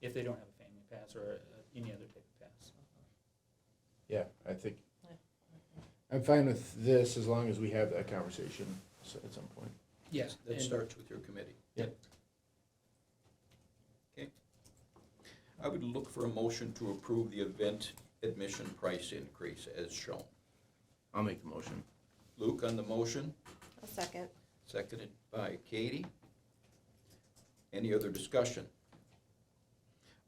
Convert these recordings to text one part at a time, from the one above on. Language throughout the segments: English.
if they don't have a family pass or uh, any other type of pass. Yeah, I think, Yeah. I'm fine with this as long as we have that conversation s- at some point. Yes. That starts with your committee. Yep. Okay. I would look for a motion to approve the event admission price increase as shown. I'll make the motion. Luke on the motion, I'll second. seconded by Katie. Any other discussion?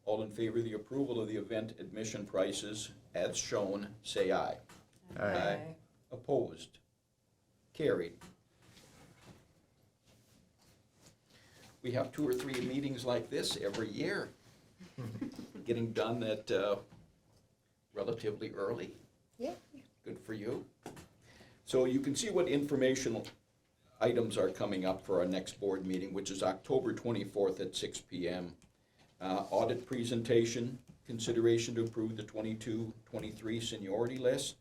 All in favor of the approval of the event admission prices as shown, say aye. Aye. Opposed? Carried. We have two or three meetings like this every year, getting done at uh, relatively early. Yeah. Good for you. So you can see what informational items are coming up for our next board meeting, which is October 24th at 6 PM. Uh, Audit presentation, consideration to approve the 22-23 seniority list,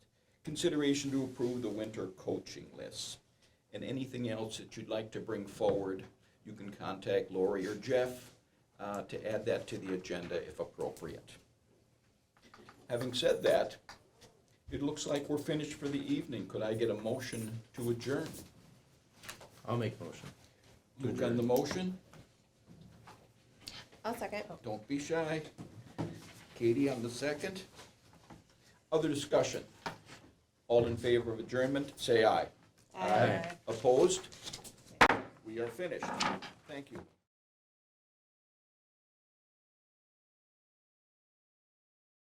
consideration to approve the winter coaching list. And anything else that you'd like to bring forward, you can contact Lori or Jeff uh, to add that to the agenda if appropriate. Having said that, it looks like we're finished for the evening. Could I get a motion to adjourn? I'll make the motion. Luke on the motion? I'll second. Don't be shy. Katie on the second. Other discussion? All in favor of adjournment, say aye. Aye. Opposed? We are finished. Thank you.